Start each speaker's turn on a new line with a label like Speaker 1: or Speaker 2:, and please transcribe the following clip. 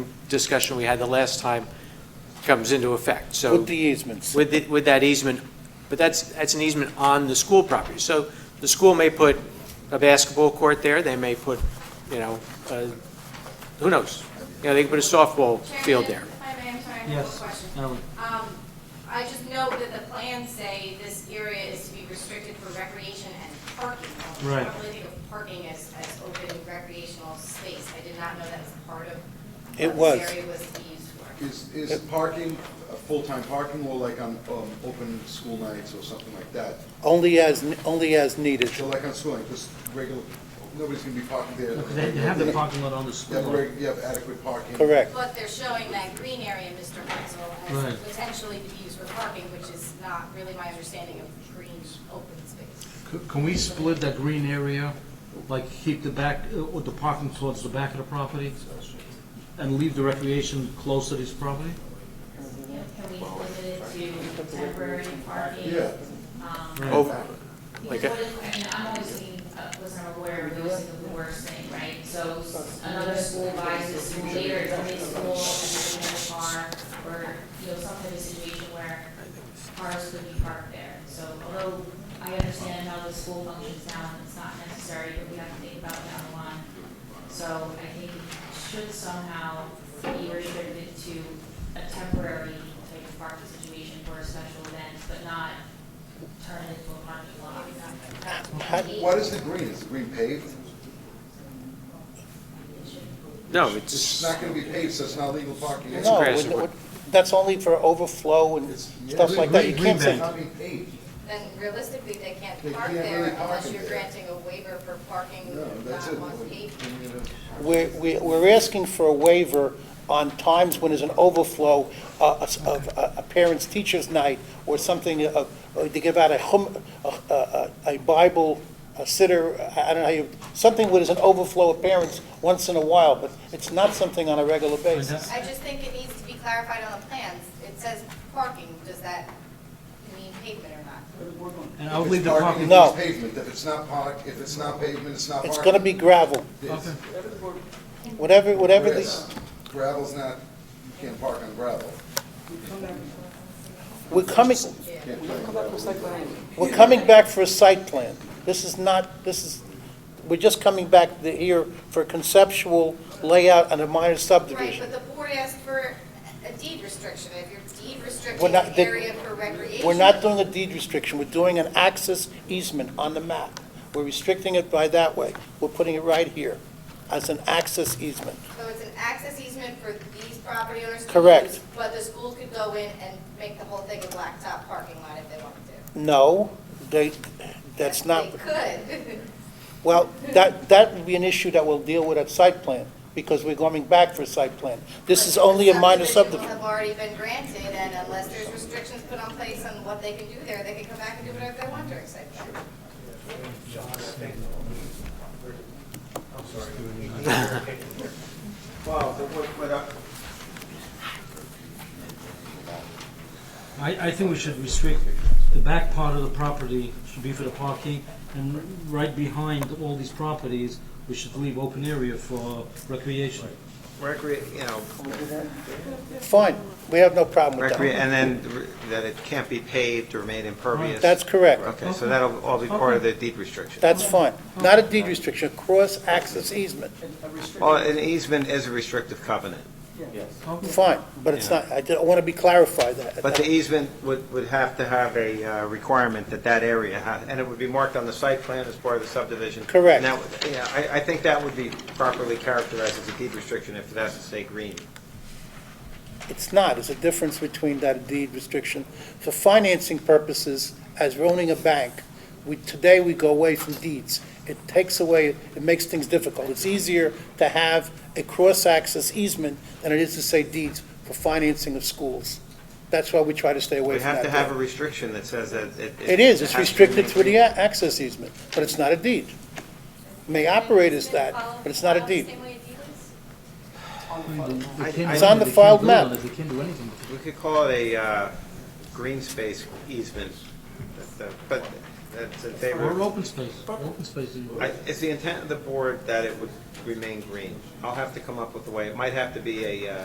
Speaker 1: discussion we had the last time comes into effect, so.
Speaker 2: With the easements.
Speaker 1: With, the- with that easement, but that's, that's an easement on the school property. So the school may put a basketball court there, they may put, you know, uh, who knows? You know, they can put a softball field there.
Speaker 3: Chairman, if I may, I'm sorry, I have a
Speaker 4: Yes,
Speaker 3: question.
Speaker 4: Ellen.
Speaker 3: Um, I just note that the plans say this area is to be restricted for recreation and parking. only. I
Speaker 4: Right.
Speaker 3: don't really think of parking as, as open recreational space. I did not know that was part of what
Speaker 2: It was.
Speaker 3: this area was to be used for.
Speaker 5: Is, is parking, uh, full-time parking, or like on, um, open school nights or something like that?
Speaker 2: Only as, only as needed.
Speaker 5: So like on school, night, just regular, nobody's gonna be parking there.
Speaker 4: Because they they have the parking lot on the
Speaker 5: You have
Speaker 4: school.
Speaker 5: reg- You have adequate parking.
Speaker 2: Correct.
Speaker 3: But they're showing that green area, Mr. Herzl, as
Speaker 4: Right.
Speaker 3: potentially to be used for parking, which is not really my understanding of green open space.
Speaker 4: C- Can we split that green area, like keep the back, uh, or the parking towards the back of the property? And leave the recreation close to this property?
Speaker 3: Can we limit it to temporary parking?
Speaker 5: Yeah.
Speaker 1: Over, like
Speaker 6: Because
Speaker 1: a-
Speaker 6: what if, I mean, I'm always thinking, uh, wasn't aware of noticing of the worst thing, right? So s- another school buys this school later, it's only school, and then a car, or, you know, some type of situation where cars could be parked there. So although I understand how the school functions now, and it's not necessary, but we have to think about down the line. So I think it should somehow be restricted to a temporary type of parking situation for a special event, but not turn it into a parking lot.
Speaker 2: How-
Speaker 5: What is the green? Is the green paved?
Speaker 1: no,
Speaker 5: It's
Speaker 1: it's,
Speaker 5: not gonna be paved, so it's not legal parking.
Speaker 1: It's
Speaker 2: No,
Speaker 1: grass.
Speaker 2: it- it- that's only for overflow and
Speaker 5: It's- yeah.
Speaker 2: stuff like that. You
Speaker 4: Green-
Speaker 2: can't
Speaker 5: It's
Speaker 2: say,
Speaker 5: not being paved.
Speaker 3: Then realistically, they can't
Speaker 5: They
Speaker 3: park
Speaker 5: can't
Speaker 3: there
Speaker 5: really park
Speaker 3: unless
Speaker 5: in
Speaker 3: you're
Speaker 5: there.
Speaker 3: granting a waiver for parking
Speaker 5: No, that's
Speaker 3: not
Speaker 5: it.
Speaker 3: on pavement.
Speaker 2: we're, we- we're asking for a waiver on times when there's an overflow uh, of of a a parent's teacher's night or something, uh, uh, to give out a hum, a- a a Bible a sitter, I I don't know how you, something where there's an overflow of parents once in a while, but it's not something on a regular basis.
Speaker 3: I just think it needs to be clarified on the plans. It says parking, does that mean pavement or not?
Speaker 4: And I'll leave the parking.
Speaker 2: No.
Speaker 5: If it's pavement, if it's not park, if it's not pavement, it's not parking.
Speaker 2: It's going to be gravel,
Speaker 5: It's
Speaker 4: Okay.
Speaker 2: whatever, whatever the...
Speaker 5: grass. Gravel's not, you can't park on gravel.
Speaker 2: We're coming,
Speaker 5: You can't play on gravel.
Speaker 2: we're coming back for a site plan. This is not, this is, we're just coming back the- here for conceptual layout and a minor
Speaker 3: Right,
Speaker 2: subdivision.
Speaker 3: but the board asked for a deed restriction. If you're deed
Speaker 2: We're
Speaker 3: restricting
Speaker 2: not-
Speaker 3: an
Speaker 2: the-
Speaker 3: area for recreation.
Speaker 2: We're not doing a deed restriction, we're doing an access easement on the map. We're restricting it by that way. We're putting it right here as an access easement.
Speaker 3: So it's an access easement for these property owners. to
Speaker 2: Correct.
Speaker 3: use, But the school could go in and make the whole thing a blacktop parking lot if they wanted to.
Speaker 2: No, they, that's not,
Speaker 3: They could.
Speaker 2: well, that, that would be an issue that we'll deal with at site plan, because we're coming back for a site plan. This is only a minor subdivision.
Speaker 3: Subdivision will have already been granted, and unless there's restrictions put on place on what they can do there, they can come back and do whatever they want during site plan.
Speaker 7: Wow, the work went up.
Speaker 4: I, I think we should restrict, the back part of the property should be for the parking, and right behind all these properties, we should leave open area for recreation.
Speaker 7: Recreate, you know,
Speaker 2: Fine, we have no problem with
Speaker 7: recreate,
Speaker 2: that.
Speaker 7: and then that it can't be paved or made impervious.
Speaker 2: That's correct.
Speaker 7: Okay, so that'll all be part of the deed restriction.
Speaker 2: That's fine. Not a deed restriction, a cross-access easement,
Speaker 7: Well, an easement is a restrictive covenant,
Speaker 2: fine, but it's not, I want to be clarified that.
Speaker 7: but the easement would, would have to have a uh, requirement that that area, ha- and it would be marked on the site plan as part of the subdivision.
Speaker 2: Correct.
Speaker 7: And that would- Yeah, I, I think that would be properly characterized as a deed restriction if it has to stay green.
Speaker 2: It's not, it's a difference between that deed restriction. For financing purposes, as we're owning a bank, we, today we go away from deeds. It takes away, it makes things difficult. It's easier to have a cross-access easement than it is to say deeds for financing of schools. That's why we try to stay away
Speaker 7: We
Speaker 2: from that.
Speaker 7: have to have a restriction that says that it.
Speaker 2: It is, it's
Speaker 7: has to be
Speaker 2: restricted to the
Speaker 7: maintained.
Speaker 2: a- access easement, but it's not a deed. May operate as that, but it's not a deed. It's on the filed map.
Speaker 4: They can't do anything.
Speaker 7: We could call it a uh, green space easement, but, uh, but that's in
Speaker 4: Or
Speaker 7: favor.
Speaker 4: open space, open space. is-
Speaker 7: I- It's the intent of the board that it would remain green. I'll have to come up with a way. It might have to be a uh,